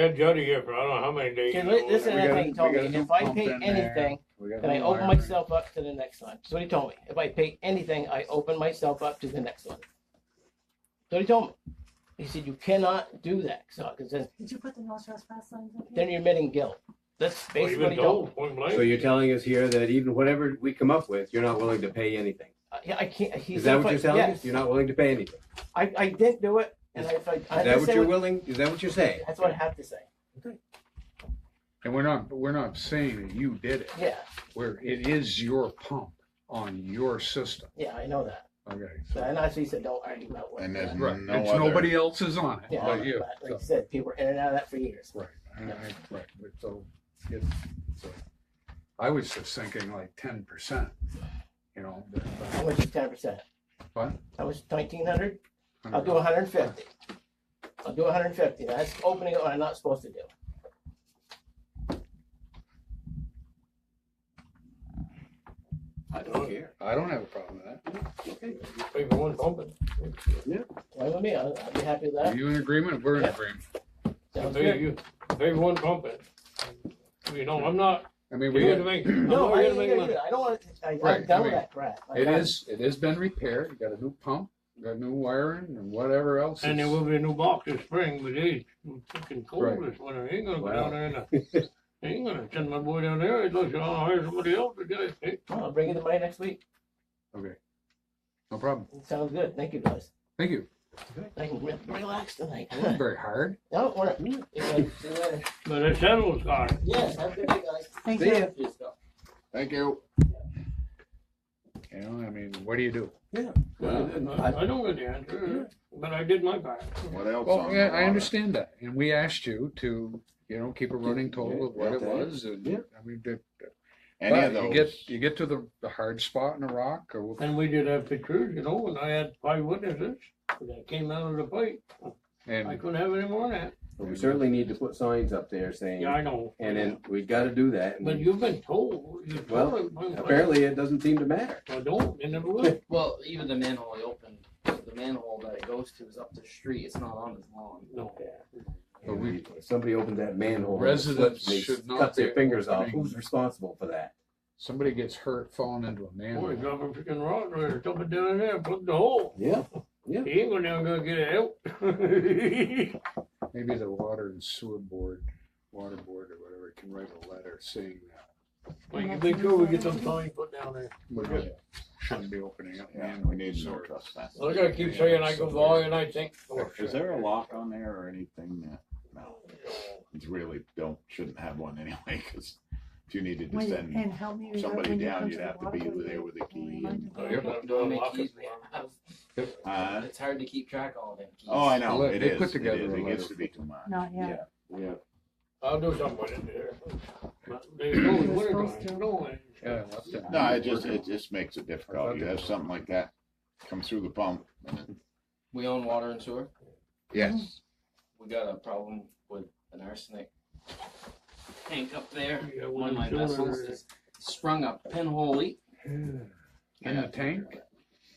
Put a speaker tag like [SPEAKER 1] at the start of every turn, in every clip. [SPEAKER 1] had Jody here for I don't know how many days.
[SPEAKER 2] Cause li- this is
[SPEAKER 3] We
[SPEAKER 2] another
[SPEAKER 3] gotta-
[SPEAKER 2] thing he told
[SPEAKER 3] we
[SPEAKER 2] me,
[SPEAKER 3] gotta
[SPEAKER 2] if I
[SPEAKER 3] pump
[SPEAKER 2] pay
[SPEAKER 3] in there.
[SPEAKER 2] anything,
[SPEAKER 3] We got
[SPEAKER 2] then I
[SPEAKER 3] a
[SPEAKER 2] open
[SPEAKER 3] wire.
[SPEAKER 2] myself up to the next one. That's what he told me. If I pay anything, I open myself up to the next one. So he told me. He said, you cannot do that, so, cause then,
[SPEAKER 4] Did you put the no trespass signs up here?
[SPEAKER 2] then you're admitting guilt. That's
[SPEAKER 1] Well, you've
[SPEAKER 2] basically what
[SPEAKER 1] been
[SPEAKER 2] he told me.
[SPEAKER 1] told point
[SPEAKER 5] So
[SPEAKER 1] blank.
[SPEAKER 5] you're telling us here that even whatever we come up with, you're not willing to pay anything.
[SPEAKER 2] I- Yeah, I can't, he
[SPEAKER 5] Is
[SPEAKER 2] said,
[SPEAKER 5] that what
[SPEAKER 2] but-
[SPEAKER 5] you're telling
[SPEAKER 2] yes.
[SPEAKER 5] us? You're not willing to pay anything.
[SPEAKER 2] I, I didn't do it, and I, I, I
[SPEAKER 5] Is that what
[SPEAKER 2] understand
[SPEAKER 5] you're
[SPEAKER 2] what-
[SPEAKER 5] willing, is that what you're saying?
[SPEAKER 2] that's what I have to say.
[SPEAKER 3] And we're not, we're not saying that you did it.
[SPEAKER 2] Yeah,
[SPEAKER 3] Where it is your pump on your system.
[SPEAKER 2] yeah, I know that.
[SPEAKER 3] Okay.
[SPEAKER 2] So, and I said, don't argue about what.
[SPEAKER 6] And there's
[SPEAKER 3] Right.
[SPEAKER 6] no
[SPEAKER 3] it's
[SPEAKER 6] other-
[SPEAKER 3] nobody else is on it
[SPEAKER 2] Yeah,
[SPEAKER 3] but you.
[SPEAKER 2] but like I said, people were in and out of that for years.
[SPEAKER 3] Right. I- I- Right. But So, it, so I was just thinking like ten percent. You know. but-
[SPEAKER 2] How much is ten percent?
[SPEAKER 3] What?
[SPEAKER 2] How much, nineteen hundred? I'll do hundred and fifty. I'll do hundred and fifty. That's opening what I'm not supposed to do.
[SPEAKER 5] I don't care.
[SPEAKER 3] I don't have a problem with
[SPEAKER 1] You pay for one pumping.
[SPEAKER 2] Fine with me. I'll, I'll be happy with
[SPEAKER 3] that. Are
[SPEAKER 2] that.
[SPEAKER 3] you in agreement? We're in
[SPEAKER 2] Yeah.
[SPEAKER 3] agreement.
[SPEAKER 1] You
[SPEAKER 2] Sounds
[SPEAKER 1] pay,
[SPEAKER 2] good.
[SPEAKER 1] you pay for one pumping. You know, I'm not,
[SPEAKER 3] I
[SPEAKER 1] you're
[SPEAKER 3] mean, we.
[SPEAKER 1] here to make, I'm
[SPEAKER 2] No,
[SPEAKER 1] not
[SPEAKER 2] I
[SPEAKER 1] here to
[SPEAKER 2] ain't gonna
[SPEAKER 1] make
[SPEAKER 2] do
[SPEAKER 1] money.
[SPEAKER 2] it. I don't want, I,
[SPEAKER 3] Right,
[SPEAKER 2] I'm
[SPEAKER 3] I
[SPEAKER 2] done with
[SPEAKER 3] mean,
[SPEAKER 2] that crap. Like,
[SPEAKER 3] It
[SPEAKER 2] I-
[SPEAKER 3] is, it has been repaired, you got a new pump, you got new wiring and whatever else.
[SPEAKER 1] And there
[SPEAKER 3] is-
[SPEAKER 1] will be a new box this spring, but geez, it's fucking cold
[SPEAKER 3] Right.
[SPEAKER 1] this winter. You ain't gonna go
[SPEAKER 5] Wow.
[SPEAKER 1] down there and, uh, you ain't gonna send my boy down there. He'd look, oh, hire somebody else to do it.
[SPEAKER 2] I'll bring you the money next week.
[SPEAKER 3] Okay. No problem,
[SPEAKER 2] Sounds good. Thank you guys.
[SPEAKER 3] thank you,
[SPEAKER 2] I can re- relax tonight.
[SPEAKER 3] It wasn't very hard.
[SPEAKER 2] No, we're, see you later.
[SPEAKER 1] But it settles, God.
[SPEAKER 2] Yes, have a good day, guys.
[SPEAKER 4] Thank
[SPEAKER 3] See
[SPEAKER 4] you.
[SPEAKER 3] ya.
[SPEAKER 2] Cheers, go.
[SPEAKER 6] Thank you.
[SPEAKER 3] You know, I mean, what do you do?
[SPEAKER 1] I I don't get the answer, but I did my part.
[SPEAKER 6] What else?
[SPEAKER 3] Well,
[SPEAKER 6] on
[SPEAKER 3] yeah,
[SPEAKER 6] the
[SPEAKER 3] I
[SPEAKER 6] water?
[SPEAKER 3] understand that, and we asked you to, you know, keep a running total of what it
[SPEAKER 6] Yeah.
[SPEAKER 3] was, and,
[SPEAKER 5] Yeah.
[SPEAKER 3] I mean, that.
[SPEAKER 6] Any
[SPEAKER 3] but
[SPEAKER 6] of those.
[SPEAKER 3] You get, you get to the, the hard spot in a rock, or,
[SPEAKER 1] And we did have pictures, you know, and I had five witnesses that came out of the fight. I
[SPEAKER 3] and,
[SPEAKER 1] couldn't have any more than
[SPEAKER 5] But we certainly need to put signs up there
[SPEAKER 1] that.
[SPEAKER 5] saying,
[SPEAKER 1] Yeah, I know.
[SPEAKER 5] and then we gotta do that. and
[SPEAKER 1] But you've been told, you've
[SPEAKER 5] Well,
[SPEAKER 1] told. them.
[SPEAKER 5] Apparently, it doesn't seem to matter.
[SPEAKER 1] I don't, they never will.
[SPEAKER 7] Well, even the manhole I opened, the manhole that it goes to is up the street. It's not on his lawn.
[SPEAKER 1] No.
[SPEAKER 3] But we-
[SPEAKER 5] If Somebody opens that manhole. and
[SPEAKER 3] Residents
[SPEAKER 5] slips and they
[SPEAKER 3] should not
[SPEAKER 5] Cut
[SPEAKER 3] be
[SPEAKER 5] their fingers off.
[SPEAKER 3] opening-
[SPEAKER 5] Who's responsible for that?
[SPEAKER 3] somebody gets hurt falling into a
[SPEAKER 1] Boy,
[SPEAKER 3] manhole.
[SPEAKER 1] drop a freaking rock or something down there, plug the hole.
[SPEAKER 5] Yeah.
[SPEAKER 1] He ain't gonna never gonna get it out.
[SPEAKER 3] Maybe the water and sewer board, water board or whatever, can write a letter saying that.
[SPEAKER 1] Well, you make sure we get them signs put down there.
[SPEAKER 3] We're not, uh, shouldn't be opening up
[SPEAKER 6] Yeah,
[SPEAKER 3] manholes.
[SPEAKER 6] we need no
[SPEAKER 3] or-
[SPEAKER 6] trespass.
[SPEAKER 1] I gotta keep saying I go by and I think, oh,
[SPEAKER 6] Is there a lock on there or anything that, no, it's really don't, shouldn't have one anyway, cause if you needed to
[SPEAKER 4] Wait,
[SPEAKER 6] send
[SPEAKER 4] and help me. remember
[SPEAKER 6] somebody
[SPEAKER 4] when you
[SPEAKER 6] down,
[SPEAKER 4] come
[SPEAKER 6] you'd
[SPEAKER 4] the
[SPEAKER 6] have to be
[SPEAKER 4] walkway,
[SPEAKER 6] there with a
[SPEAKER 4] I'll
[SPEAKER 6] key
[SPEAKER 4] remind
[SPEAKER 6] and,
[SPEAKER 4] them.
[SPEAKER 1] Oh, you're not
[SPEAKER 7] How
[SPEAKER 1] doing
[SPEAKER 7] many
[SPEAKER 1] lock
[SPEAKER 7] keys
[SPEAKER 1] it.
[SPEAKER 7] we have?
[SPEAKER 6] uh,
[SPEAKER 7] It's hard to keep track of all them keys.
[SPEAKER 6] oh, I know,
[SPEAKER 3] They
[SPEAKER 6] it is,
[SPEAKER 3] put
[SPEAKER 6] it
[SPEAKER 3] together
[SPEAKER 6] is,
[SPEAKER 3] a
[SPEAKER 6] it
[SPEAKER 3] letter.
[SPEAKER 6] gets to be too much.
[SPEAKER 4] Not yet.
[SPEAKER 5] Yeah.
[SPEAKER 1] I'll do something with it there. But They know
[SPEAKER 4] You're
[SPEAKER 1] what they're
[SPEAKER 4] supposed to.
[SPEAKER 1] doing, no, and-
[SPEAKER 3] Yeah, I left it.
[SPEAKER 6] No, it just, it just makes it difficult,
[SPEAKER 3] Working.
[SPEAKER 6] you have something like that come through the pump, and it-
[SPEAKER 7] We own water and sewer.
[SPEAKER 3] Yes.
[SPEAKER 7] We got a problem with an arsenic tank up there.
[SPEAKER 1] Yeah,
[SPEAKER 7] One of my
[SPEAKER 1] well, sure.
[SPEAKER 7] vessels has sprung a pinhole leak
[SPEAKER 3] And the tank,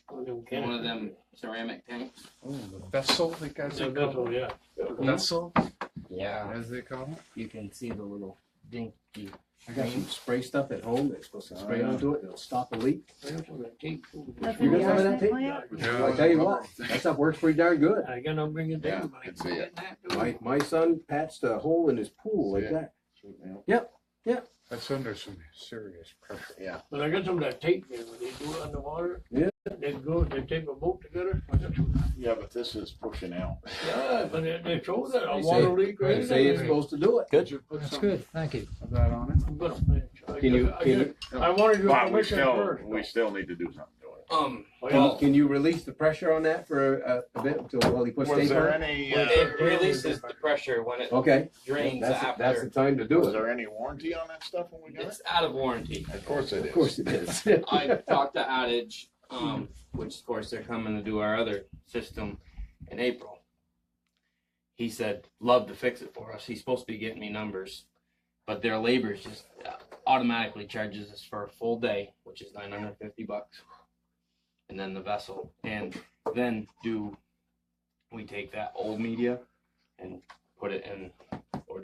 [SPEAKER 1] One of them
[SPEAKER 7] in one of
[SPEAKER 1] cans.
[SPEAKER 7] them ceramic tanks.
[SPEAKER 3] oh, the vessel, the guys
[SPEAKER 1] It's a vessel, yeah.
[SPEAKER 3] Vessel,
[SPEAKER 7] Yeah,
[SPEAKER 3] as they call it.
[SPEAKER 7] you can see the little dinky.
[SPEAKER 5] I got some spray stuff at home that's supposed to
[SPEAKER 3] Uh,
[SPEAKER 5] spray onto it, and it'll stop a leak.
[SPEAKER 4] That's
[SPEAKER 5] You
[SPEAKER 4] in
[SPEAKER 5] got
[SPEAKER 4] the
[SPEAKER 5] some of that
[SPEAKER 4] arsenic
[SPEAKER 5] tape?
[SPEAKER 4] plant?
[SPEAKER 3] uh,
[SPEAKER 5] I tell you what, that stuff works pretty darn good.
[SPEAKER 1] I gotta bring it
[SPEAKER 6] Yeah,
[SPEAKER 1] down. but I
[SPEAKER 6] I
[SPEAKER 1] can't
[SPEAKER 6] see
[SPEAKER 1] get that to
[SPEAKER 5] My,
[SPEAKER 1] it.
[SPEAKER 5] my son patched a hole in his pool like that.
[SPEAKER 3] That's under some serious pressure.
[SPEAKER 1] But I got some of that tape there, when they do it underwater.
[SPEAKER 5] Yeah.
[SPEAKER 1] They go, they tape a boat together. I got some-
[SPEAKER 6] yeah, but this is pushing out.
[SPEAKER 1] Yeah, but they, they show that a
[SPEAKER 5] They say-
[SPEAKER 1] water leak right
[SPEAKER 5] They say it's
[SPEAKER 1] there.
[SPEAKER 5] supposed to do it.
[SPEAKER 3] Good. That's good, thank you. Is that on it?
[SPEAKER 1] I'm gonna finish. I
[SPEAKER 5] Can you,
[SPEAKER 1] just- I
[SPEAKER 5] can you,
[SPEAKER 1] just- I wanted your
[SPEAKER 6] But we
[SPEAKER 1] permission
[SPEAKER 6] still,
[SPEAKER 1] first.
[SPEAKER 6] we still need to do something to it.
[SPEAKER 7] Um,
[SPEAKER 5] can- can you release the pressure on that for a, a bit until, while he puts tape
[SPEAKER 6] Was
[SPEAKER 5] on
[SPEAKER 6] there
[SPEAKER 5] it?
[SPEAKER 6] any, uh,
[SPEAKER 7] it releases the pressure when it
[SPEAKER 5] Okay.
[SPEAKER 7] drains
[SPEAKER 5] That's,
[SPEAKER 7] after.
[SPEAKER 5] that's the time to do
[SPEAKER 6] was
[SPEAKER 5] it.
[SPEAKER 6] there any warranty on that stuff when we got it?
[SPEAKER 7] It's out of warranty.
[SPEAKER 6] Of course it
[SPEAKER 5] Of course it is.
[SPEAKER 7] I talked to Adage, um, which of course they're coming to do our other system in April. He said, love to fix it for us. He's supposed to be getting me numbers, but their labor is just uh, automatically charges us for a full day, which is 950 bucks. And then the vessel. And then do we take that old media and put it in